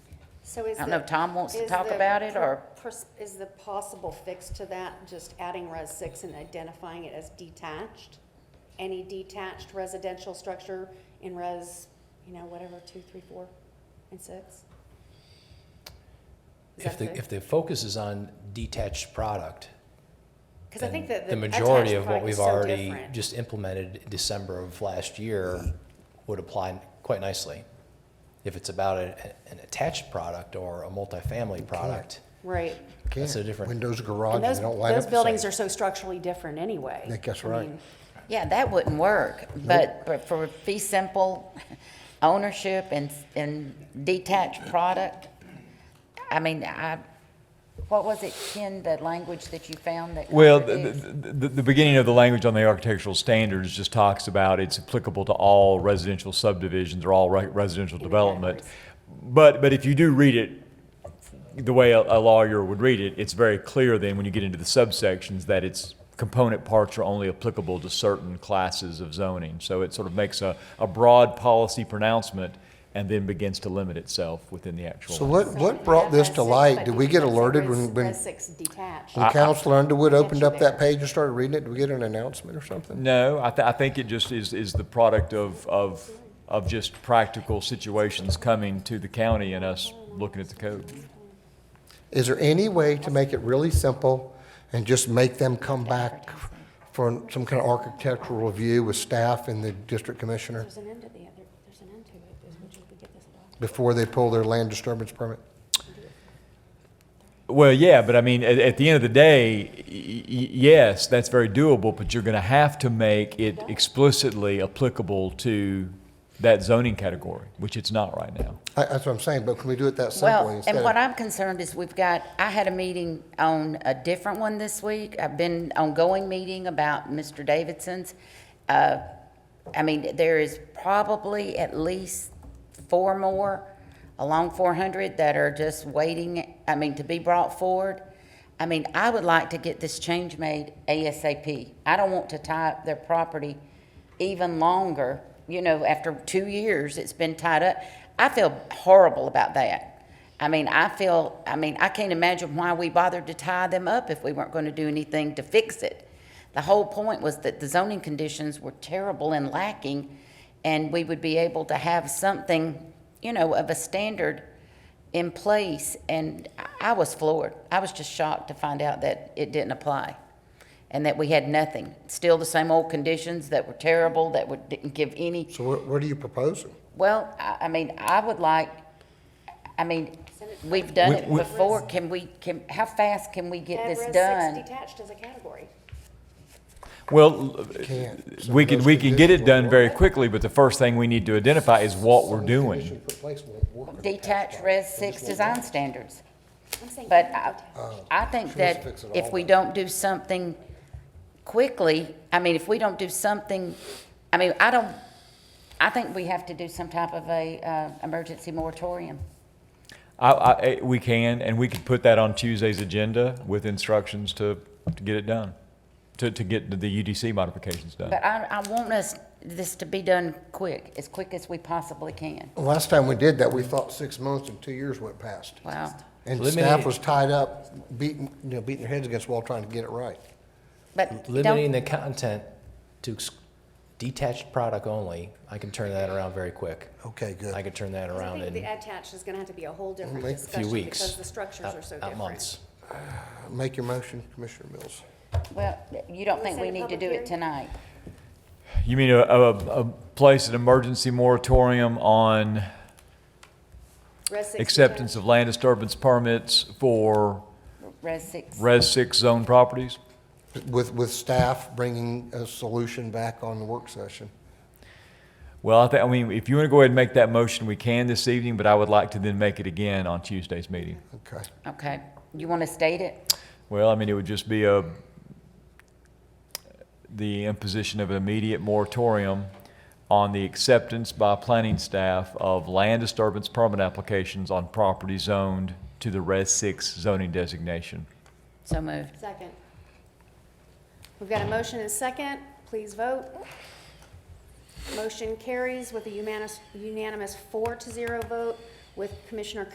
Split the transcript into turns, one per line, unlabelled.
So is
I don't know,
the-
Tom wants to
is
talk
the
about it,
per-
or?
pers- Is the possible fix to that just adding res six and identifying it as detached? Any detached residential structure in res, you know, whatever, two, three, four, and six? Is
If
that
the,
good?
if the focus is on detached product,
Because I think
then
that
the majority
attached
of what
product is
we've
so
already
different.
just implemented December of last year would apply quite nicely. If it's about a- an attached product or a multifamily product,
Right.
That's a
Can't.
different-
Windows,
And
garage,
those,
they don't line up
those
the
buildings
same.
are so structurally different anyway.
Nick, that's
I
right.
mean,
Yeah, that wouldn't work, but, but for fee simple ownership and, and detached product, I mean, I, what was it, Ken, the language that you found that?
Well, the,
contradicts?
the, the- the beginning of the language on the architectural standards just talks about it's applicable to all residential subdivisions or all re- residential development. But, but if you do read it the way a, a lawyer would read it, it's very clear then when you get into the subsections that its component parts are only applicable to certain classes of zoning. So it sort of makes a, a broad policy pronouncement and then begins to limit itself within the actual.
So what, what brought this to light? Did we get alerted when, when,
Res six detached.
when Counselor Underwood opened up
there.
that page and started reading it? Did we get an announcement or something?
No, I, th- I think it just is, is the product of, of, of just practical situations coming to the county and us looking at the code.
Is there any way to make it really simple and just make them come back for some kind of architectural review with staff and the district commissioner
There's an end to the other, there's an end to it, is what you could get this done.
before they pull their land disturbance permit?
Well, yeah, but I mean, at, at the end of the day, y- y- yes, that's very doable, but you're going to have to make it explicitly applicable to that zoning category, which it's not right now.
I- That's what I'm saying, but can we do it that
Well,
simply instead?
and what
of-
I'm concerned is we've got, I had a meeting on a different one this week. I've been ongoing meeting about Mr. Davidson's. Uh, I mean, there is probably at least four more along 400 that are just waiting, I mean, to be brought forward. I mean, I would like to get this change made ASAP. I don't want to tie up their property even longer, you know, after two years, it's been tied up. I feel horrible about that. I mean, I feel, I mean, I can't imagine why we bothered to tie them up if we weren't going to do anything to fix it. The whole point was that the zoning conditions were terrible and lacking, and we would be able to have something, you know, of a standard in place. And I- I was floored. I was just shocked to find out that it didn't apply and that we had nothing. Still the same old conditions that were terrible, that would, didn't give any
So what, what are you proposing?
well, I, I mean, I would like, I mean, we've done
We-
it
we-
before, can we, can, how fast can we get
Add
this
res six
done?
detached as a category.
Well, l-
Can't.
we can, we can get it done very
quickly.
quickly, but the first thing we need to identify is what we're doing.
Detached res six design standards.
I'm saying.
But
add
I,
detached.
I think
Oh. she wants to
that
fix it
if
all
we
up.
don't do something quickly, I mean, if we don't do something, I mean, I don't, I think we have to do some type of a, uh, emergency moratorium.
I, I, eh, we can, and we could put that on Tuesday's agenda with instructions to, to get it done, to, to get the UDC modifications done.
But I, I want us, this to be done quick, as quick as we possibly can.
Last time we did that, we thought six months and two years went past.
Wow.
And
Eliminate-
staff was tied up, beating, you know, beating their heads against the wall trying to get it right.
But don't,
Limiting the content to ex- detached product only, I can turn that around very quick.
Okay, good.
I can turn that
'Cause I
around
think
in
the attached is gonna have to be a whole different
Make
a
a few
few
discussion
weeks.
because the structures
not-
are so
not
different.
months.
Make your motion, Commissioner Mills.
well, you don't
We
think
set
we
a
need to
public
do
hearing?
it tonight?
You mean a, a, a place, an emergency moratorium on
Res six
acceptance
detached.
of land disturbance permits for
Res six?
Res Six zone properties?
With, with staff bringing a solution back on the work session.
Well, I think, I mean, if you want to go ahead and make that motion, we can this evening, but I would like to then make it again on Tuesday's meeting.
Okay.
Okay, you want to state it?
Well, I mean, it would just be a, the imposition of an immediate moratorium on the acceptance by planning staff of land disturbance permit applications on property zoned to the Res Six zoning designation.
So moved.
Second. We've got a motion and a second. Please vote. Motion carries with a unanimous, unanimous four to zero vote with Commissioner